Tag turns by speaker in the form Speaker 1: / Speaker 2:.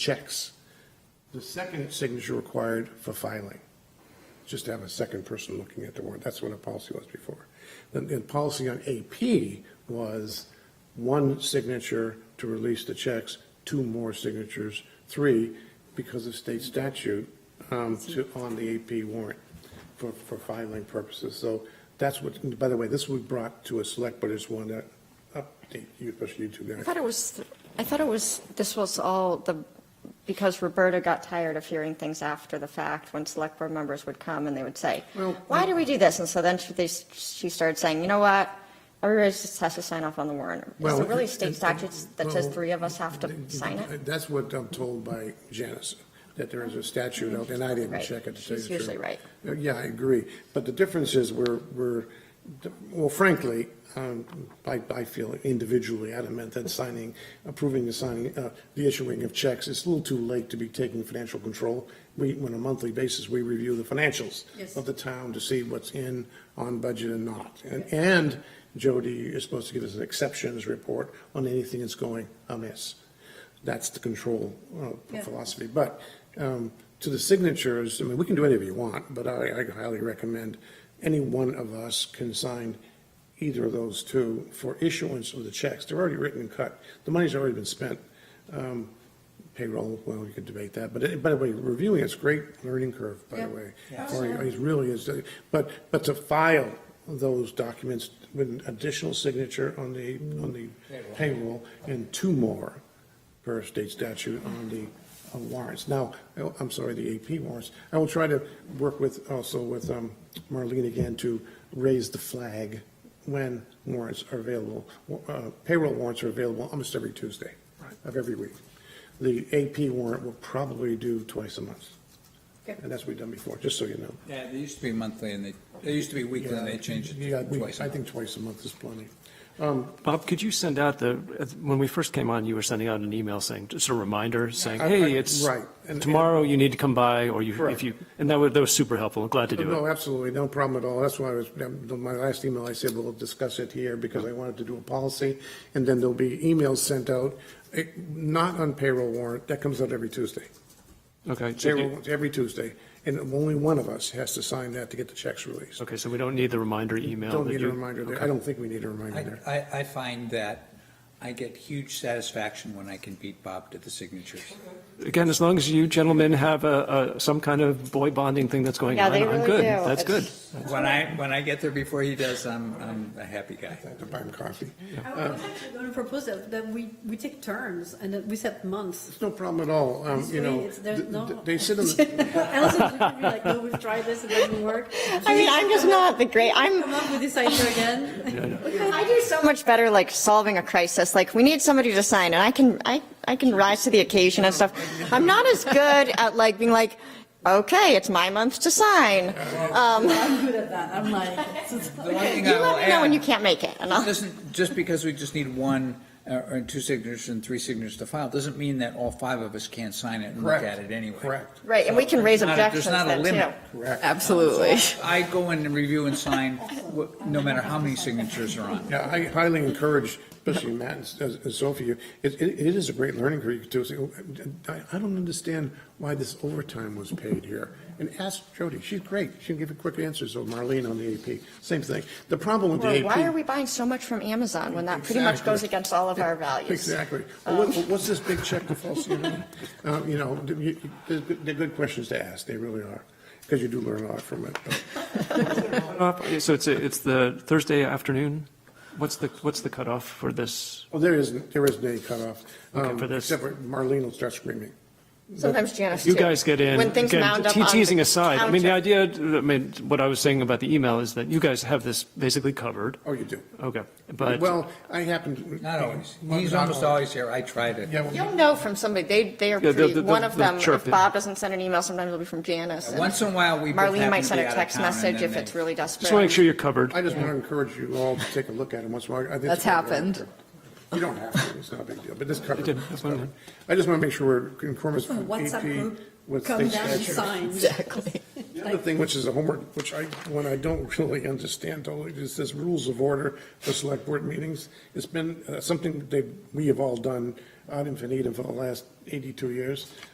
Speaker 1: checks. The second signature required for filing, just to have a second person looking at the warrant. That's what a policy was before. Then the policy on AP was one signature to release the checks, two more signatures, three, because of state statute, um, to, on the AP warrant for, for filing purposes. So that's what, by the way, this was brought to a select, but I just wanted to update you, especially you two guys.
Speaker 2: I thought it was, I thought it was, this was all the, because Roberta got tired of hearing things after the fact, when select board members would come and they would say,
Speaker 1: Well,
Speaker 2: why do we do this? And so then she, they- she started saying, you know what? Everybody just has to sign off on the warrant. Is
Speaker 1: Well,
Speaker 2: there really
Speaker 1: it-
Speaker 2: state
Speaker 1: it-
Speaker 2: statutes that says
Speaker 1: well,
Speaker 2: three of us have to sign it?
Speaker 1: That's what I'm told by Janice, that there is a statute out, and I didn't
Speaker 2: Right.
Speaker 1: check it to tell you the
Speaker 2: She's
Speaker 1: truth.
Speaker 2: usually right.
Speaker 1: Uh, Yeah, I agree. But the difference is we're, we're, well, frankly, um, I, I feel individually adamant that signing, approving the signing, uh, the issuing of checks, it's a little too late to be taking financial control. We, on a monthly basis, we review the financials
Speaker 3: Yes.
Speaker 1: of the town to see what's in, on budget and not. And, and Jody is supposed to give us an exceptions report on anything that's going amiss. That's the control uh,
Speaker 3: Yeah.
Speaker 1: philosophy. But um, to the signatures, I mean, we can do whatever you want, but I I highly recommend any one of us can sign either of those two for issuance of the checks. They're already written and cut. The money's already been spent. Um, Payroll, well, you could debate that, but it- by the way, reviewing is great learning curve, by the
Speaker 3: Yeah.
Speaker 1: way.
Speaker 3: Yeah.
Speaker 1: For you. It really is. uh, But, but to file those documents with an additional signature on the, on the payroll and two more per state statute on the uh, warrants. Now, oh, I'm sorry, the AP warrants. I will try to work with, also with um, Marlene again to raise the flag when warrants are available. Uh, Payroll warrants are available almost every Tuesday of every week. The AP warrant will probably do twice a month.
Speaker 3: Okay.
Speaker 1: And that's what we've done before, just so you know.
Speaker 4: Yeah, they used to be monthly and they, they used to be weekly and they changed it
Speaker 1: Yeah,
Speaker 4: to
Speaker 1: we-
Speaker 4: twice. a
Speaker 1: I
Speaker 4: month.
Speaker 1: think twice a month is plenty.
Speaker 5: Bob, could you send out the, when we first came on, you were sending out an email saying, just a reminder saying,
Speaker 1: I- I-
Speaker 5: hey, it's
Speaker 1: right, and-
Speaker 5: tomorrow, you need to come by, or you,
Speaker 1: Correct.
Speaker 5: if you, and that was, that was super helpful. Glad to do
Speaker 1: Oh, No,
Speaker 5: it.
Speaker 1: absolutely, no problem at all. That's why I was, um, my last email, I said, we'll discuss it here because I wanted to do a policy. And then there'll be emails sent out, eh, not on payroll warrant, that comes out every Tuesday.
Speaker 5: Okay. so
Speaker 1: Payroll,
Speaker 5: you-
Speaker 1: warrants every Tuesday, and only one of us has to sign that to get the checks released.
Speaker 5: Okay, so we don't need the reminder email.
Speaker 1: Don't
Speaker 5: that
Speaker 1: need a
Speaker 5: you-
Speaker 1: reminder there.
Speaker 5: okay.
Speaker 1: I don't think we need a reminder
Speaker 4: I,
Speaker 1: there.
Speaker 4: I, I find that I get huge satisfaction when I can beat Bob to the signatures.
Speaker 5: Again, as long as you gentlemen have a, a, some kind of boy bonding thing that's going
Speaker 2: Yeah,
Speaker 5: on,
Speaker 2: they
Speaker 5: I'm
Speaker 2: really
Speaker 5: good.
Speaker 2: do.
Speaker 5: That's
Speaker 2: It's-
Speaker 5: good.
Speaker 4: When I, when I get there before he does, I'm, I'm a happy guy.
Speaker 1: I have to buy him coffee.
Speaker 3: I was actually going to propose that, that we, we take turns and that we set months.
Speaker 1: It's no problem at all, um,
Speaker 3: This
Speaker 1: you
Speaker 3: way
Speaker 1: know.
Speaker 3: it's- there's
Speaker 1: th-
Speaker 3: no-
Speaker 1: th- They sit in, the-
Speaker 3: Else it's gonna be like, no, we've tried this, it doesn't work.
Speaker 2: I mean, I'm just not the great, I'm,
Speaker 3: Come up with this idea again.
Speaker 2: I do so much better like solving a crisis. Like we need somebody to sign, and I can I I can rise to the occasion and stuff. I'm not as good at like being like, okay, it's my month to sign. Um,
Speaker 3: I'm good at that, I'm like.
Speaker 4: The one thing
Speaker 2: you
Speaker 4: I will
Speaker 2: let me know when
Speaker 4: add-
Speaker 2: you can't make it, and I'll.
Speaker 4: Doesn't, just because we just need one, uh, or two signatures and three signatures to file, doesn't mean that all five of us can't sign it and look
Speaker 1: Correct.
Speaker 4: at it anyway.
Speaker 1: Correct.
Speaker 2: Right, and we can raise
Speaker 4: There's not a-
Speaker 2: objections
Speaker 4: There's not a
Speaker 2: then too.
Speaker 4: limit.
Speaker 6: Absolutely.
Speaker 4: I go in and review and sign, wh- no matter how many signatures are on.
Speaker 1: Yeah, I highly encourage, especially Matt and S- and Sophie, it, it it is a great learning curve. You could do, say, "Oh, I, I don't understand why this overtime was paid here. And ask Jody, she's great, she can give you quick answers, or Marlene on the AP, same thing. The problem with the
Speaker 2: Or
Speaker 1: AP.
Speaker 2: why are we buying so much from Amazon when that pretty much
Speaker 1: Exactly.
Speaker 2: goes against all of our values?
Speaker 1: Exactly. Well, what- What's this big check to false, you know? Uh, You know, you- you- they're good- they're good questions to ask, they really are, because you do learn a lot from it. but-
Speaker 5: So it's, a- it's the Thursday afternoon? What's the, what's the cutoff for this?
Speaker 1: Well, Oh, there isn't, there isn't any cutoff. um,
Speaker 5: for this.
Speaker 1: Except for Marlene will start screaming.
Speaker 2: Sometimes Janice.
Speaker 5: You
Speaker 2: too.
Speaker 5: guys get in.
Speaker 2: when things
Speaker 5: again,
Speaker 2: mound up
Speaker 5: te-
Speaker 2: on the
Speaker 5: Teasing aside, I mean, the
Speaker 2: counter.
Speaker 5: idea, I mean, what I was saying about the email is that you guys have this basically covered.
Speaker 1: Oh, you do.
Speaker 5: Okay, but.
Speaker 1: Well, I happen to.
Speaker 4: Not always.
Speaker 1: Well,
Speaker 4: He's
Speaker 1: not
Speaker 4: almost always here. I try to.
Speaker 1: Yeah, well,
Speaker 2: You'll know from somebody. They they are
Speaker 5: Yeah, they'll-
Speaker 2: pretty.
Speaker 5: they'll-
Speaker 2: one of
Speaker 5: they'll
Speaker 2: them.
Speaker 5: chirp
Speaker 2: If
Speaker 5: in.
Speaker 2: Bob doesn't send an email, sometimes it'll be from Janice. and
Speaker 4: Once in a while, we both
Speaker 2: Marlene
Speaker 4: happen
Speaker 2: might
Speaker 4: to
Speaker 2: send
Speaker 4: be
Speaker 2: a
Speaker 4: out of
Speaker 2: text
Speaker 4: town, and
Speaker 2: message
Speaker 4: then
Speaker 2: if
Speaker 4: they-
Speaker 2: it's really desperate.
Speaker 5: Just want to make sure you're covered.
Speaker 1: I just want to encourage you all to take a look at it once in a while. I think
Speaker 6: That's
Speaker 1: it's not a big
Speaker 6: happened.
Speaker 1: deal. You don't have to, it's not a big deal, but this covers.
Speaker 5: did. That's fine.
Speaker 1: I just want to make sure we're in accordance
Speaker 3: A
Speaker 1: with
Speaker 3: WhatsApp
Speaker 1: AP,
Speaker 3: group,
Speaker 1: with
Speaker 3: come
Speaker 1: state
Speaker 3: down and
Speaker 1: statute.
Speaker 3: sign.
Speaker 1: The other thing, which is a homework, which I, when I don't really understand totally, is this rules of order for select board meetings. It's been uh, something that we have all done, uh, ad infinitum for the last 82 years.